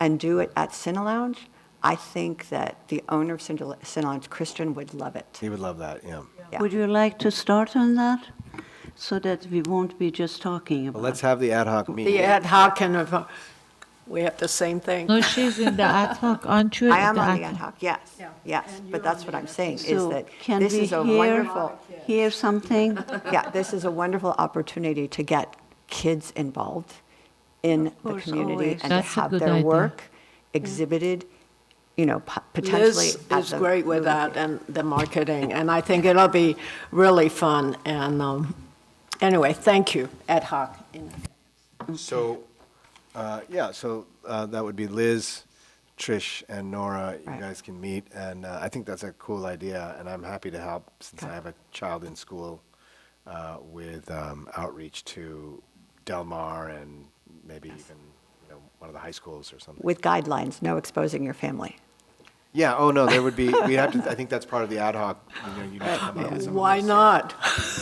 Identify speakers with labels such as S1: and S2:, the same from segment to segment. S1: and do it at Cine Lounge, I think that the owner of Cine Cine Lounge, Christian, would love it.
S2: He would love that, yeah.
S1: Yeah.
S3: Would you like to start on that? So that we won't be just talking
S2: But
S3: about
S2: let's have the ad hoc meeting.
S4: The ad hoc and, of- we have the same thing.
S5: No, she's in the ad hoc, aren't you?
S1: I am on the ad hoc, yes, yes, but that's what I'm saying, is
S3: So
S1: that
S3: can
S1: this
S3: we
S1: is a
S3: hear-
S1: wonderful,
S3: Hear something?
S1: yeah, this is a wonderful opportunity to get kids involved in the
S3: course,
S1: community
S3: always.
S1: and to
S5: That's a
S1: have
S5: good
S1: their
S5: idea.
S1: work exhibited, you know, po- potentially
S4: Liz
S1: at
S4: is
S1: the
S4: great with
S1: movie
S4: that
S1: theater.
S4: and the marketing, and I think it'll be really fun. And um, anyway, thank you, ad hoc.
S2: So, uh, yeah, so uh, that would be Liz, Trish, and Nora. You
S1: Right.
S2: guys can meet, and uh, I think that's a cool idea, and I'm happy to help since I have a child in school uh, with um, outreach to Del Mar and maybe even, you know, one of the high schools or something.
S1: With guidelines, no exposing your family.
S2: Yeah, oh, no, there would be, we have to, I think that's part of the ad hoc, you know, you need to come up with some. of
S4: Why
S2: those-
S4: not?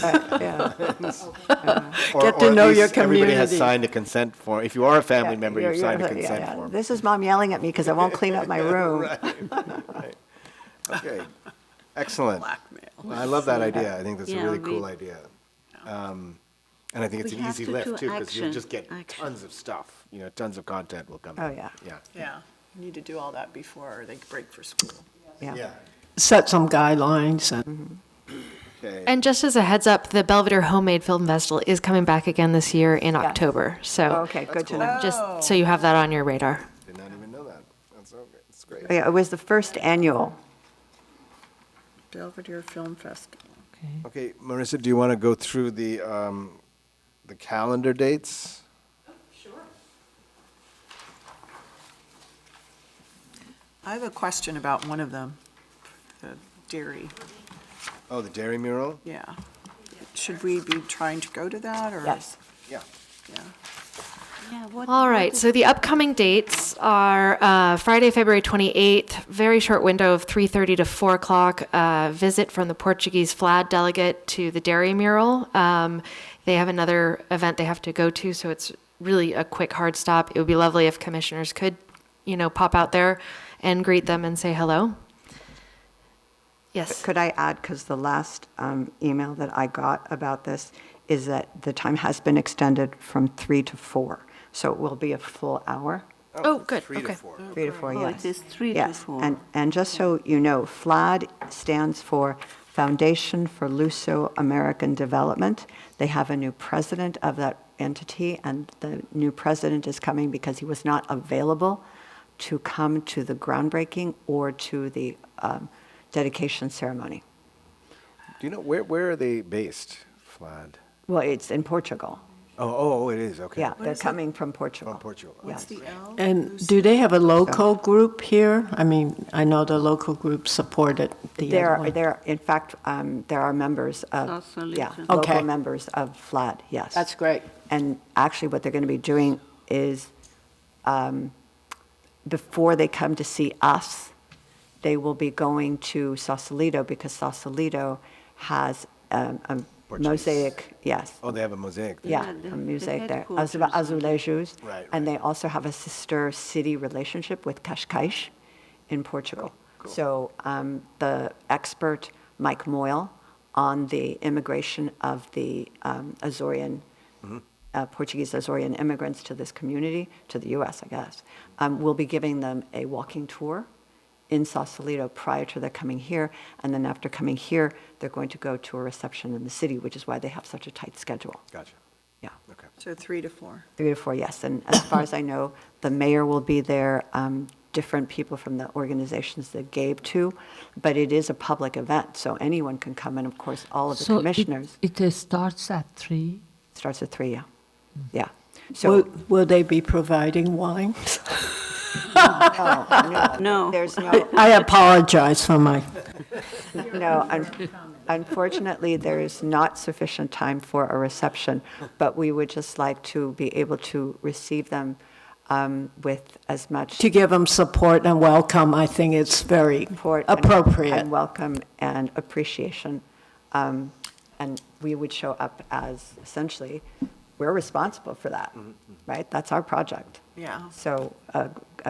S1: Yeah,
S2: or-
S4: Get
S2: or
S4: to
S2: at
S4: know your
S2: least Everybody has
S4: community.
S2: signed a consent form. If you are a family
S1: yeah,
S2: member,
S1: you're-
S2: you've signed a
S1: you're- yeah,
S2: consent
S1: yeah.
S2: form.
S1: This is mom yelling at me because I won't clean up my room.
S2: Okay, excellent. I love that idea. I think that's a
S3: Yeah,
S2: really
S3: we-
S2: cool idea. Um, And I think it's
S3: We
S2: an
S3: have
S2: easy
S3: to
S2: lift
S3: do
S2: too, because you'll
S3: action,
S2: just get
S3: action.
S2: tons of stuff, you know, tons of content will come.
S1: Oh,
S2: in.
S1: yeah.
S2: Yeah,
S6: Yeah, you need to do all that before they break for school.
S2: yeah.
S4: Set some guidelines and.
S2: Okay.
S7: And just as a heads up, the Belvedere Homemade Film Festival is coming back again this year in October. So
S1: Oh,
S3: Oh,
S1: Okay, good to
S3: Uh,
S1: know.
S7: just so you have that on your radar.
S2: Did not even know that. That's so good. That's great.
S1: Yeah, it was the first annual.
S6: Belvedere Film Festival.
S2: Okay, Marissa, do you want to go through the, um, the calendar dates?
S6: I have a question about one of them, the dairy,
S2: Oh, the dairy mural?
S6: yeah. Should we be trying to go to that, or?
S1: Yes.
S2: Yeah.
S6: Yeah.
S3: Yeah, what-
S7: All right, so the upcoming dates are uh, Friday, February 28th, very short window of 3:30 to 4 o'clock, uh, visit from the Portuguese flag delegate to the Dairy Mural. Um, They have another event they have to go to, so it's really a quick hard stop. It would be lovely if commissioners could, you know, pop out there and greet them and say hello. Yes.
S1: Could I add, because the last um, email that I got about this is that the time has been extended from three to four, so it will be a full hour,
S7: Oh, good,
S2: Three to
S7: okay.
S2: four.
S1: three to four,
S3: Oh,
S1: yes.
S3: it is three to
S1: Yes,
S3: four.
S1: and, and just so you know, FLAD stands for Foundation for Luso American Development. They have a new president of that entity, and the new president is coming because he was not available to come to the groundbreaking or to the um, dedication ceremony.
S2: Do you know, where, where are they based, Flad?
S1: Well, it's in Portugal.
S2: Oh, oh, it is, okay.
S1: Yeah, they're coming from Portugal.
S2: From Portugal.
S1: Yes.
S4: And do they have a local group here? I mean, I know the local group supported the
S1: There
S4: other
S1: are,
S4: one.
S1: there, are- in fact, um, there are members of,
S3: Also
S1: yeah,
S3: Luton.
S1: local
S4: Okay.
S1: members of FLAD, yes.
S4: That's great.
S1: And actually, what they're going to be doing is, um, before they come to see us, they will be going to Sausalito because Sausalito has um, a
S2: Portuguese.
S1: mosaic, yes,
S2: Oh, they have a mosaic. there.
S1: yeah,
S3: the-
S1: a
S3: the
S1: mosaic there,
S3: headquarters
S1: Azu-
S3: of the-
S1: azulejos.
S2: Right,
S1: And
S2: right.
S1: they also have a sister city relationship with Cascais in Portugal. So um, the expert, Mike Moyle, on the immigration of the um, Azorean,
S2: Mm-hmm.
S1: uh, Portuguese Azorean immigrants to this community, to the US, I guess, um, will be giving them a walking tour in Sausalito prior to their coming here. And then after coming here, they're going to go to a reception in the city, which is why they have such a tight schedule.
S2: Gotcha.
S1: Yeah,
S2: Okay.
S6: So three to four.
S1: three to four, yes. And as far as I know, the mayor will be there, um, different people from the organizations that gave to, but it is a public event, so anyone can come, and of course, all of the
S5: So it-
S1: commissioners.
S5: It uh, starts at three.
S1: Starts at three, yeah. Yeah. So,
S4: Will, will they be providing wine?
S3: No.
S1: there's oh, no,
S4: I apologize for my,
S1: no, un- unfortunately, there is not sufficient time for a reception, but we would just like to be able to receive them um, with as much.
S4: to give them support and welcome, I think it's very
S1: support and-
S4: appropriate.
S1: And welcome and appreciation. Um, And we would show up as essentially, we're responsible for that, right? That's our project.
S6: Yeah.
S1: So uh, a a